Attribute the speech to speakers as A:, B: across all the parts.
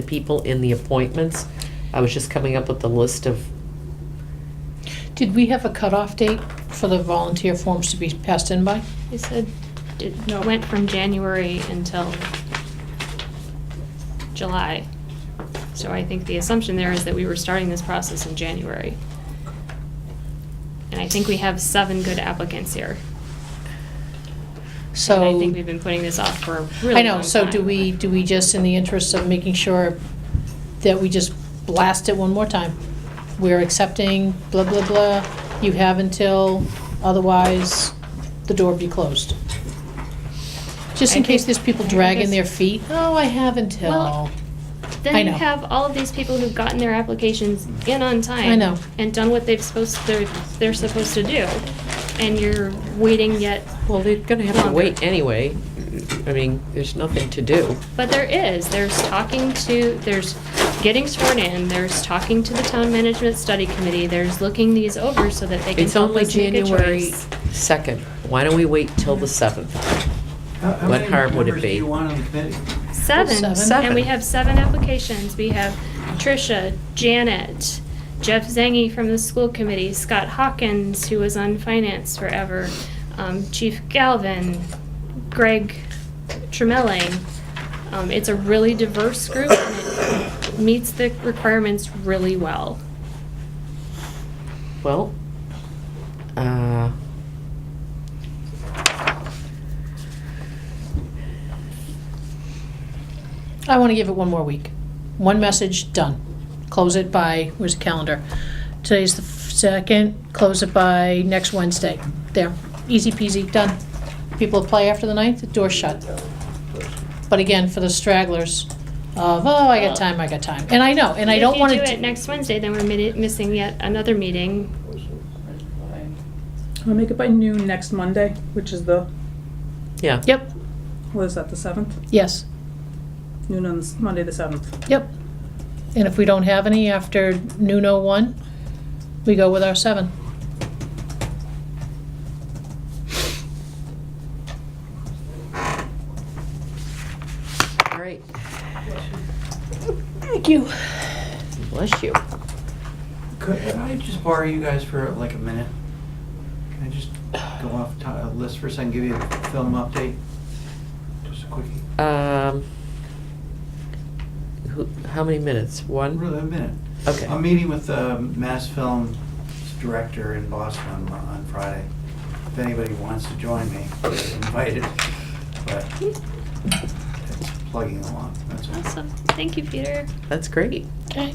A: the people in the appointments. I was just coming up with the list of,
B: Did we have a cutoff date for the volunteer forms to be passed in by?
C: You said it
B: No.
C: went from January until July. So I think the assumption there is that we were starting this process in January. And I think we have seven good applicants here. And I
B: So,
C: think we've been putting this off for a really
B: I know,
C: long
B: so do
C: time.
B: we, do we just, in the interest of making sure that we just blast it one more time? We're accepting blah, blah, blah, you have until, otherwise, the door be closed. Just in
C: I think-
B: case there's people
C: I think
B: dragging
C: it's-
B: their feet, oh, I have until.
C: Well,
B: I
C: Then you
B: know.
C: have all of these people who've gotten their applications in on time.
B: I know.
C: And done what they've supposed, they're, they're supposed to do. And you're waiting yet
A: well, they're gonna have to
C: Longer.
A: wait anyway. I mean, there's nothing to do.
C: But there is, there's talking to, there's getting sworn in, there's talking to the town management study committee, there's looking these over so that they can
A: It's
C: help
A: only
C: us make a
A: January
C: choice.
A: second. Why don't we wait till the seventh?
D: How- how
A: What
D: many
A: harm would it
D: members
A: be?
D: do you want on the committee?
C: Seven,
B: Seven.
C: and we have seven applications, we have Tricia, Janet, Jeff Zangy from the school committee, Scott Hawkins, who was on finance forever, um, Chief Galvin, Greg Tremelling. Um, it's a really diverse group and it meets the requirements really well.
A: Well, uh,
B: I want to give it one more week. One message, done. Close it by, where's the calendar? Today's the f- second, close it by next Wednesday. There, easy peasy, done. People play after the ninth, the door's shut. But again, for the stragglers of, oh, I got time, I got time. And I know, and I don't want to.
C: If you do it next Wednesday, then we're midi- missing yet another meeting.
E: I'll make it by noon next Monday, which is the,
A: yeah.
B: Yep,
E: what is that, the seventh?
B: yes,
E: Noon on the s- Monday, the seventh.
B: yep. And if we don't have any after noon oh one, we go with our seven.
A: All right.
B: Thank you.
A: Bless you.
D: Could I just borrow you guys for like a minute? Can I just go off to- a list for a second, give you a film update? Just a quickie,
A: Um, who, how many minutes? One?
D: really a minute.
A: Okay.
D: I'm meeting with the Mass Film's director in Boston on, on Friday. If anybody wants to join me, they're invited, but it's plugging along, that's all.
C: Awesome, thank you, Peter.
A: That's great.
B: Okay.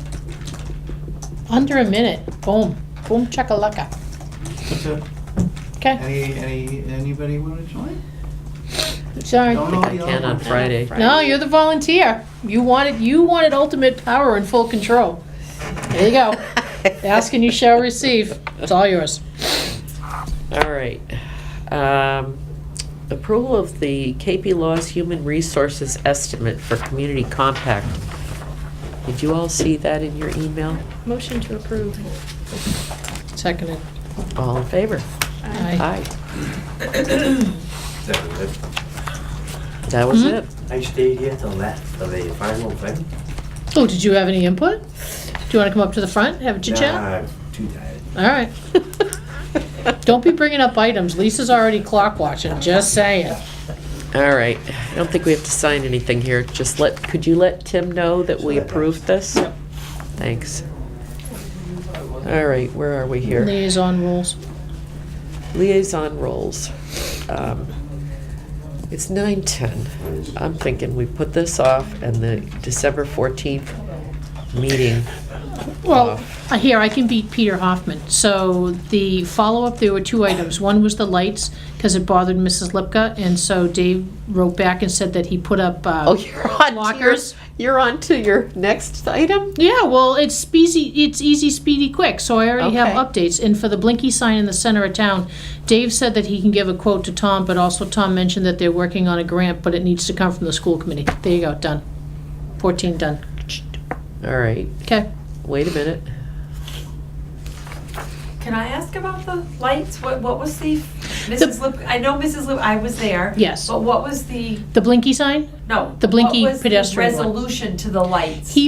B: Under a minute. Boom. Boom chakalaka.
D: That's it.
B: Okay.
D: Any, any, anybody want to join?
B: Sorry.
D: Don't know
A: I
D: the other
A: can on
D: one.
A: Friday.
B: No, you're the volunteer. You wanted you wanted ultimate power and full control. There you go. Ask and you shall receive. It's all yours.
A: All right. Um, Approval of the KP Law's Human Resources Estimate for Community Compact. Did you all see that in your email?
C: Motion to approve.
B: Seconded.
A: All in favor?
B: Aye.
A: Aye. That was
B: Mhm.
A: it.
F: I stayed here till that, till the final thing.
B: Oh, did you have any input? Do you want to come up to the front? Have a chit chat?
F: Nah, I'm Too tired.
B: All right. Don't be bringing up items. Lisa's already clock watching. Just saying.
A: All right. I don't think we have to sign anything here. Just let, could you let Tim know that we approved this? Thanks. All right, where are we here?
B: Liaison rules.
A: liaison roles. Um, It's nine ten. I'm thinking we put this off and the December fourteenth meeting.
B: Well, uh, here, I can beat Peter Hoffman. So the follow-up, there were two items. One was the lights, because it bothered Mrs. Lipka, and so Dave wrote back and said that he put up, uh,
A: Oh, you're on to your,
B: Lockers.
A: you're on to your next item?
B: Yeah, well, it's speedy, it's easy, speedy, quick, so I already have
A: Okay.
B: updates. And for the blinky sign in the center of town, Dave said that he can give a quote to Tom, but also Tom mentioned that they're working on a grant, but it needs to come from the school committee. There you go, done. Fourteen, done.
A: All right,
B: Okay.
A: wait a minute.
G: Can I ask about the lights? What, what was the Mrs. Lip, I know Mrs. Lip, I was there.
B: Yes.
A: oh.
G: But what was the,
B: The blinky sign?
G: no.
B: The blinky
G: what was the
B: pedestrian one.
G: Resolution to the lights.
B: He